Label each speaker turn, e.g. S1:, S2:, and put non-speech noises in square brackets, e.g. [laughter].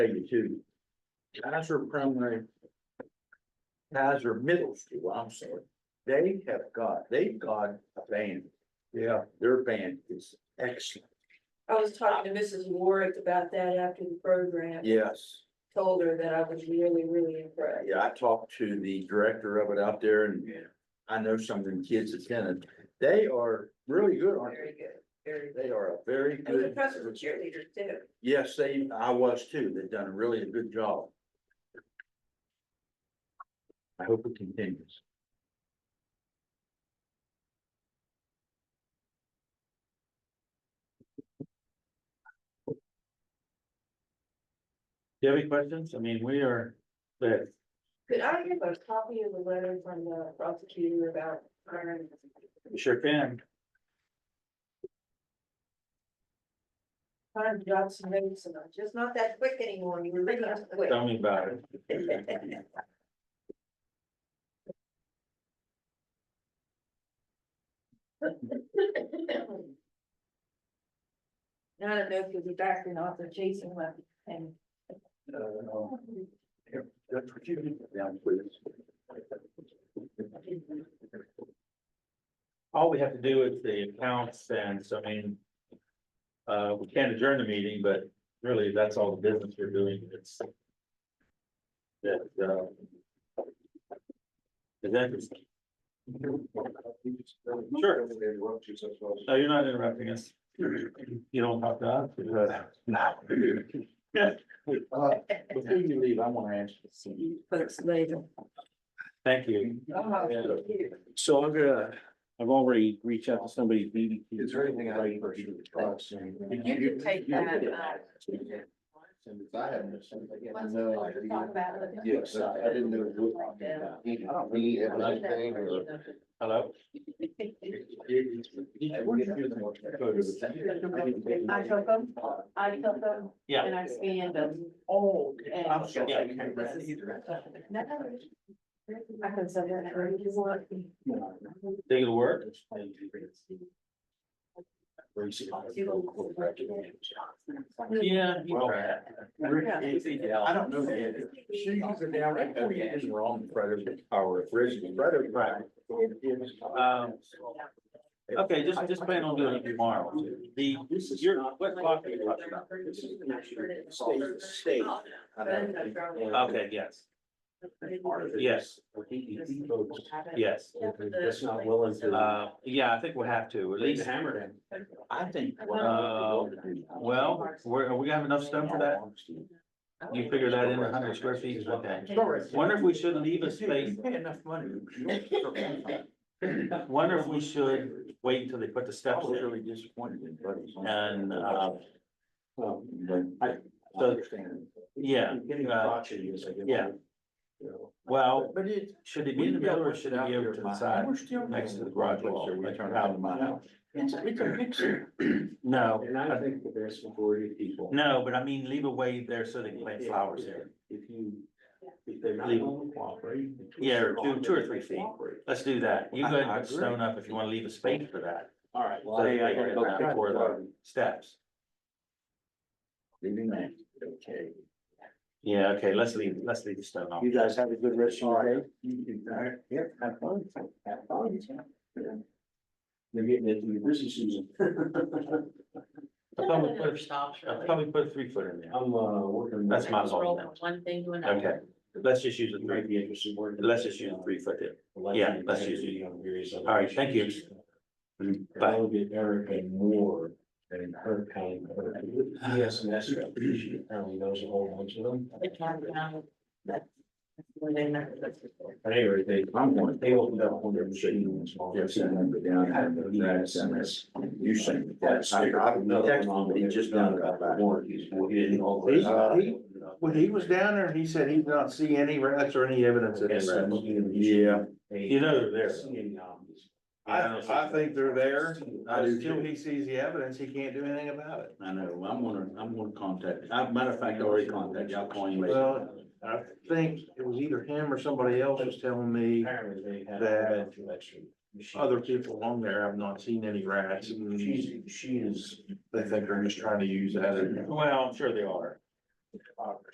S1: eighty-two. Kaiser primary. Kaiser middle school, I'm sorry, they have got, they've got a band,
S2: Yeah,
S1: their band is excellent,
S3: I was talking to Mrs. Warwick about that after the program,
S1: yes.
S3: told her that I was really, really impressed.
S1: Yeah, I talked to the director of it out there and I know some of them kids attended. They are really good, aren't
S3: Very good, very
S1: they?
S3: good.
S1: They are a very
S3: I was
S1: good.
S3: impressed with the cheerleaders too.
S1: Yes, they, I was too. They've done a really a good job. I hope it continues. Do you have any questions? I mean, we are, that,
S3: Could I have a copy of the letter from the prosecutor about hiring?
S1: we sure can.
S3: Trying to jot some notes and I'm just not that quick anymore. You
S1: [laughs]
S3: were really not quick.
S1: Tell me about it.
S3: Now I don't know if you'll be back or not, so Jason left and.
S1: Uh, here, that's what you need down, please.
S2: all we have to do is the accounts and so I mean. Uh, we can't adjourn the meeting, but really that's all the business we're doing. It's. That, uh. Is that, Sure. no, oh, you're not interrupting us. You don't have to. ask, uh,
S1: No. Uh, Before you leave, I want to ask you something.
S3: Folks later.
S2: Thank you.
S4: So I'm gonna, I've already reached out to somebody. at BBQ.
S1: Is there anything I need for you?
S3: You can take that, uh,
S1: Since I haven't, missed something, I
S3: Once
S1: didn't know. I
S3: we talk
S1: didn't-
S3: about it.
S1: Yes, I I didn't know. what we were talking about. I don't really have anything or-
S2: Hello?
S3: I took them, I took them,
S2: Yeah.
S3: and I scanned them.
S1: Oh.
S3: And-
S1: I'm sorry.
S2: Yeah.
S3: No, I can send that for you. want.
S2: Think it'll work? Yeah. you
S1: Well,
S2: try it.
S1: I don't know. the- She uses it down right there. It's wrong. Predator power. Predator power.
S2: Um, Okay, just, just plan on doing it tomorrow. The, this is your, what clock are you talking about?
S1: State, state.
S3: Oh,
S1: I don't-
S2: Okay, yes, yes, yes.
S1: That's not willing to.
S2: Uh, yeah, I think we'll have to, at least,
S1: hammered in. I think.
S2: Uh, well, we're, we have enough stuff for that? You figure that in a hundred square feet is what that. Wonder if we should leave a space,
S1: Pay enough money.
S2: [laughs] wonder if we should wait until they put the
S1: I
S2: steps
S1: was
S2: in.
S1: really disappointed in buddies.
S2: And, uh,
S1: Well, then I I
S2: so-
S1: understand.
S2: Yeah,
S1: Getting
S2: uh,
S1: crotchety is like.
S2: yeah.
S1: you know.
S2: well,
S1: But it.
S2: should it be in the middle or should it be over to the side? next to the garage wall, like out of my house.
S1: It's, it's a
S2: [laughs]
S1: picture.
S2: No,
S1: And I think the vast majority of people.
S2: no, but I mean, leave a way there so they can plant flowers there.
S1: If you, if they're not
S2: Leave.
S1: going to cooperate.
S2: Yeah, or two- two or three feet.
S1: Cooperate.
S2: Let's do that. You go ahead
S1: I- I
S2: and put
S1: agree.
S2: stone up if you want to leave a space for that.
S1: All right.
S2: So they can go back before the steps.
S1: Leaving that, okay.
S2: Yeah, okay, let's leave, let's leave the stone off.
S4: You guys have a good rest of your day.
S1: Yeah, have fun, have fun. They're getting into the
S4: [laughs]
S1: busy season.
S2: I'll probably put, I'll probably put a three foot in there.
S1: I'm, uh, working.
S2: That's my fault.
S3: One thing to
S2: Okay, let's just use a
S1: You
S2: three,
S1: might be interested in working.
S2: let's just use a three foot there. yeah, let's use it.
S1: On various other
S2: All right, thank you.
S1: issues.
S2: Bye.
S1: That'll get Erica more than her kind of. her- Yes, and that's, she apparently knows a whole bunch of them.
S3: um,
S1: At any rate, they, I'm going, they opened up one of their machines. Yes, and then go down. and have the grass and this- You sent. Yes, I, I texted him just down about that. Warranties.
S2: When he was down there, he said he did not see any rats or any evidence of any rats.
S1: Yeah.
S2: You know they're there.
S5: I, I think they're there.
S1: I do
S5: Until
S1: too.
S5: he sees the evidence, he can't do anything about it.
S1: I know, I'm gonna, I'm gonna contact, I, Uh, matter of fact, I already contacted, you. I'll call you later.
S5: Well, I think it was either him or somebody else was telling me
S1: Apparently they had.
S5: that
S1: Other
S5: other people along there have not seen any rats and
S1: She's,
S5: they
S1: she is.
S5: think they're just trying to use that as
S2: Well, I'm sure they are.